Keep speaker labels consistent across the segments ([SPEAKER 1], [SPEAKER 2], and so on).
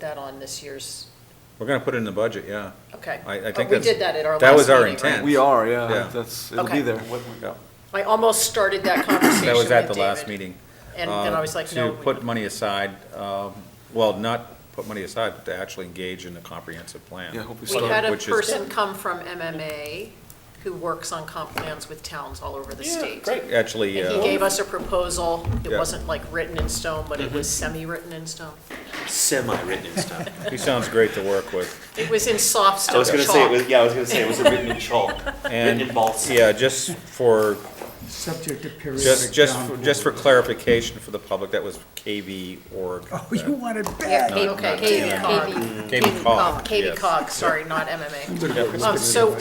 [SPEAKER 1] that on this year's,
[SPEAKER 2] We're gonna put it in the budget, yeah.
[SPEAKER 1] okay.
[SPEAKER 2] I, I
[SPEAKER 1] But
[SPEAKER 2] think
[SPEAKER 1] We
[SPEAKER 2] that's-
[SPEAKER 1] did that at our last meeting,
[SPEAKER 2] That was our
[SPEAKER 1] right?
[SPEAKER 2] intent.
[SPEAKER 3] We are,
[SPEAKER 2] Yeah.
[SPEAKER 3] yeah, that's, it'll
[SPEAKER 1] Okay.
[SPEAKER 3] be there.
[SPEAKER 2] Yeah.
[SPEAKER 1] I almost started that conversation
[SPEAKER 2] That was at
[SPEAKER 1] with
[SPEAKER 2] the last
[SPEAKER 1] David,
[SPEAKER 2] meeting.
[SPEAKER 1] And then I was
[SPEAKER 2] uh,
[SPEAKER 1] like, no.
[SPEAKER 2] To
[SPEAKER 1] we-
[SPEAKER 2] put money aside, um, well, not put money aside, but to actually engage in a comprehensive plan.
[SPEAKER 3] Yeah, hope we
[SPEAKER 1] We had a
[SPEAKER 2] which is-
[SPEAKER 1] person come from MMA who works on comp plans with towns all over the state. And
[SPEAKER 2] Actually,
[SPEAKER 1] he
[SPEAKER 2] uh,
[SPEAKER 1] gave us a proposal. It
[SPEAKER 2] Yeah. Mm-hmm.
[SPEAKER 1] wasn't like written in stone, but it was semi-written in stone.
[SPEAKER 4] semi-written in stone.
[SPEAKER 2] he sounds great to work with.
[SPEAKER 1] It was in soft
[SPEAKER 4] I
[SPEAKER 1] stone
[SPEAKER 4] was gonna say it
[SPEAKER 1] chalk.
[SPEAKER 4] was. Yeah, I was gonna say it was written in chalk,
[SPEAKER 2] And,
[SPEAKER 4] written in balsa.
[SPEAKER 2] yeah, just for,
[SPEAKER 5] Subject to periodic
[SPEAKER 2] just, just, for-
[SPEAKER 5] downpour.
[SPEAKER 2] just for clarification for the public, that was KV org.
[SPEAKER 5] Oh, you want it
[SPEAKER 6] Yeah,
[SPEAKER 5] bad.
[SPEAKER 6] K-
[SPEAKER 2] Not- not
[SPEAKER 6] K-
[SPEAKER 1] TNI.
[SPEAKER 6] KV.
[SPEAKER 2] KV cog.
[SPEAKER 1] Katie
[SPEAKER 2] yes.
[SPEAKER 1] Cog, sorry, not MMA. Um, So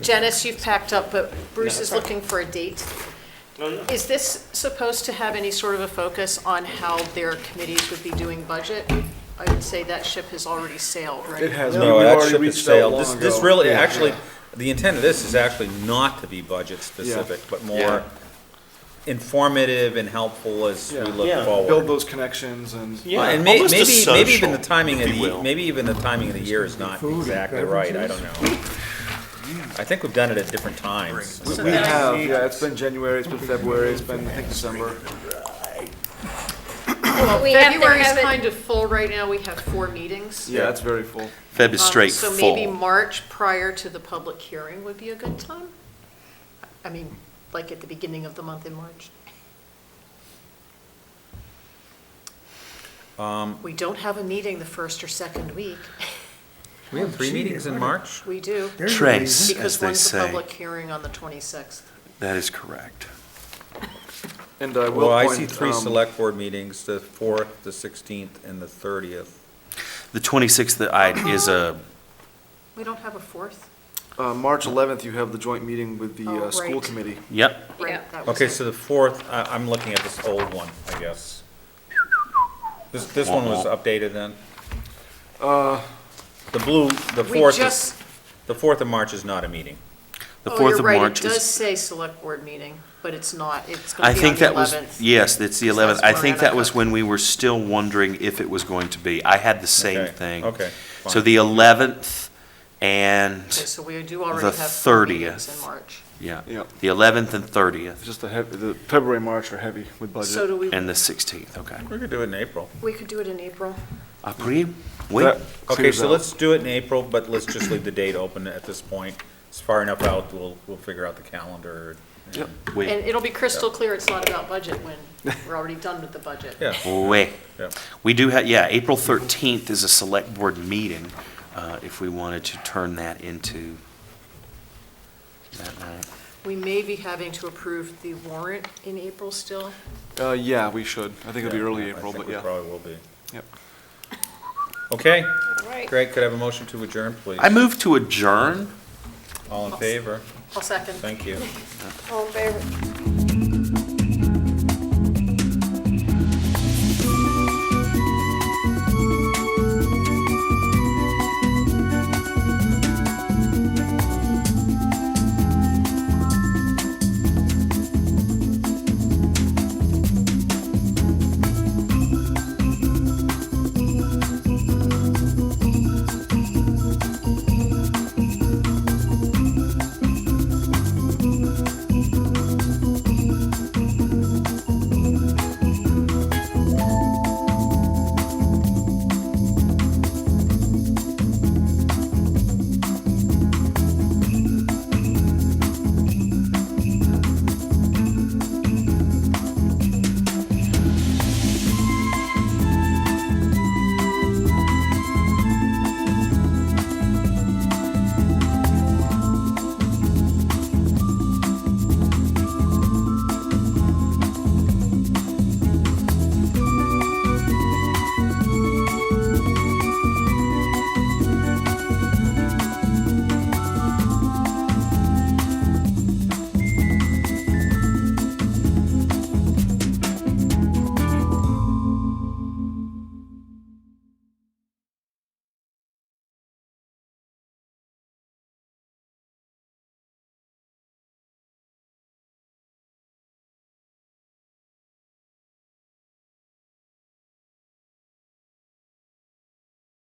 [SPEAKER 1] Janice, you've packed up, but Bruce is looking for a date.
[SPEAKER 4] No, no.
[SPEAKER 1] Is this supposed to have any sort of a focus on how their committees would be doing budget? I would say that ship has already sailed, right?
[SPEAKER 3] It has, we- we've
[SPEAKER 2] No, that
[SPEAKER 3] already
[SPEAKER 2] ship has
[SPEAKER 3] reached out
[SPEAKER 2] sailed.
[SPEAKER 3] long
[SPEAKER 2] This,
[SPEAKER 3] ago.
[SPEAKER 2] this really,
[SPEAKER 3] Yeah.
[SPEAKER 2] actually, the intent of this is actually not to be budget specific, but
[SPEAKER 3] Yeah.
[SPEAKER 2] more informative and helpful as we
[SPEAKER 3] Yeah.
[SPEAKER 2] look
[SPEAKER 4] Yeah.
[SPEAKER 3] Build
[SPEAKER 2] forward. Uh,
[SPEAKER 3] those connections and.
[SPEAKER 4] Yeah.
[SPEAKER 2] And may,
[SPEAKER 4] almost a
[SPEAKER 2] maybe, maybe even the
[SPEAKER 4] social,
[SPEAKER 2] timing of
[SPEAKER 4] if you
[SPEAKER 2] the,
[SPEAKER 4] will.
[SPEAKER 2] maybe even the timing of the year is not
[SPEAKER 5] Food and
[SPEAKER 2] exactly right, I don't
[SPEAKER 5] beverages.
[SPEAKER 2] know. I think we've done it at different times.
[SPEAKER 3] We we have, yeah, it's been January, it's been February, it's been, I think, December.
[SPEAKER 6] We have to
[SPEAKER 1] February's
[SPEAKER 6] have it-
[SPEAKER 1] kind of full right now, we have four meetings.
[SPEAKER 3] Yeah, it's very full.
[SPEAKER 4] Feb is
[SPEAKER 1] Um,
[SPEAKER 4] straight
[SPEAKER 1] So
[SPEAKER 4] full.
[SPEAKER 1] maybe March prior to the public hearing would be a good time? I mean, like at the beginning of the month in March?
[SPEAKER 4] Um,
[SPEAKER 1] We don't have a meeting the first or second week.
[SPEAKER 2] We have three meetings in March?
[SPEAKER 1] We do,
[SPEAKER 4] Trace.
[SPEAKER 1] because
[SPEAKER 4] As they
[SPEAKER 1] one's the
[SPEAKER 4] say.
[SPEAKER 1] public hearing on the 26th.
[SPEAKER 4] that is correct.
[SPEAKER 3] And I will
[SPEAKER 2] Well,
[SPEAKER 3] point.
[SPEAKER 2] I see three
[SPEAKER 3] um,
[SPEAKER 2] select board meetings, the fourth, the sixteenth, and the thirtieth.
[SPEAKER 4] The 26th that I is a
[SPEAKER 1] We don't have a fourth?
[SPEAKER 3] Uh, March 11th, you have the joint meeting with the
[SPEAKER 1] Oh,
[SPEAKER 3] uh, school
[SPEAKER 1] right.
[SPEAKER 3] committee.
[SPEAKER 4] yep.
[SPEAKER 1] Right,
[SPEAKER 6] Yeah.
[SPEAKER 1] that was
[SPEAKER 2] Okay,
[SPEAKER 1] it.
[SPEAKER 2] so the fourth, I, I'm looking at this old one, I guess. This, this one was updated then?
[SPEAKER 3] Uh,
[SPEAKER 2] The blue, the
[SPEAKER 1] We
[SPEAKER 2] fourth is,
[SPEAKER 1] just-
[SPEAKER 2] the fourth of March is not a meeting.
[SPEAKER 4] The
[SPEAKER 1] Oh,
[SPEAKER 4] 4th
[SPEAKER 1] you're
[SPEAKER 4] of
[SPEAKER 1] right,
[SPEAKER 4] March
[SPEAKER 1] It does
[SPEAKER 4] is.
[SPEAKER 1] say select board meeting, but it's not, it's going
[SPEAKER 4] I
[SPEAKER 1] to be on
[SPEAKER 4] think
[SPEAKER 1] the
[SPEAKER 4] that was
[SPEAKER 1] 11th.
[SPEAKER 4] yes. It's the
[SPEAKER 1] So
[SPEAKER 4] 11th.
[SPEAKER 1] that's
[SPEAKER 4] I
[SPEAKER 1] where
[SPEAKER 4] think
[SPEAKER 1] I'm
[SPEAKER 4] that
[SPEAKER 1] at.
[SPEAKER 4] was when we were still wondering if it was going to be. I had the same
[SPEAKER 2] Okay,
[SPEAKER 4] thing.
[SPEAKER 2] okay,
[SPEAKER 4] So
[SPEAKER 2] fine.
[SPEAKER 4] the 11th and
[SPEAKER 1] Okay, So we do already
[SPEAKER 4] The
[SPEAKER 1] have four
[SPEAKER 4] 30th.
[SPEAKER 1] meetings in March.
[SPEAKER 4] yeah,
[SPEAKER 3] Yeah.
[SPEAKER 4] the 11th and
[SPEAKER 3] it's
[SPEAKER 4] 30th
[SPEAKER 3] just the heavy, the February, March are heavy with
[SPEAKER 1] So
[SPEAKER 3] budget.
[SPEAKER 1] do we,
[SPEAKER 4] and the 16th. Okay.
[SPEAKER 2] We could do it in April.
[SPEAKER 1] we could do it in April.
[SPEAKER 4] Après, oui.
[SPEAKER 3] That
[SPEAKER 2] Okay,
[SPEAKER 3] clears
[SPEAKER 2] so
[SPEAKER 3] out.
[SPEAKER 2] let's do it in April, but let's just leave the date open at this point. It's far enough out, we'll, we'll figure out the calendar.
[SPEAKER 3] Yep.
[SPEAKER 4] Oui.
[SPEAKER 1] And it'll be crystal clear it's not about budget when we're already done with the budget.
[SPEAKER 2] Yeah,
[SPEAKER 4] Oui.
[SPEAKER 2] yeah.
[SPEAKER 4] We do have, yeah, April 13th is a select board meeting, uh, if we wanted to turn that into that night.
[SPEAKER 1] We may be having to approve the warrant in April still.
[SPEAKER 3] Uh, yeah, we should. I think it'll be early April,
[SPEAKER 2] I
[SPEAKER 3] but
[SPEAKER 2] think we
[SPEAKER 3] yeah.
[SPEAKER 2] probably will be.
[SPEAKER 3] Yep.
[SPEAKER 2] Okay,
[SPEAKER 6] Right.
[SPEAKER 2] Greg, could I have a motion to adjourn, please?
[SPEAKER 4] I move to adjourn.
[SPEAKER 2] All in favor?
[SPEAKER 1] I'll second.
[SPEAKER 2] Thank you.
[SPEAKER 6] All in favor?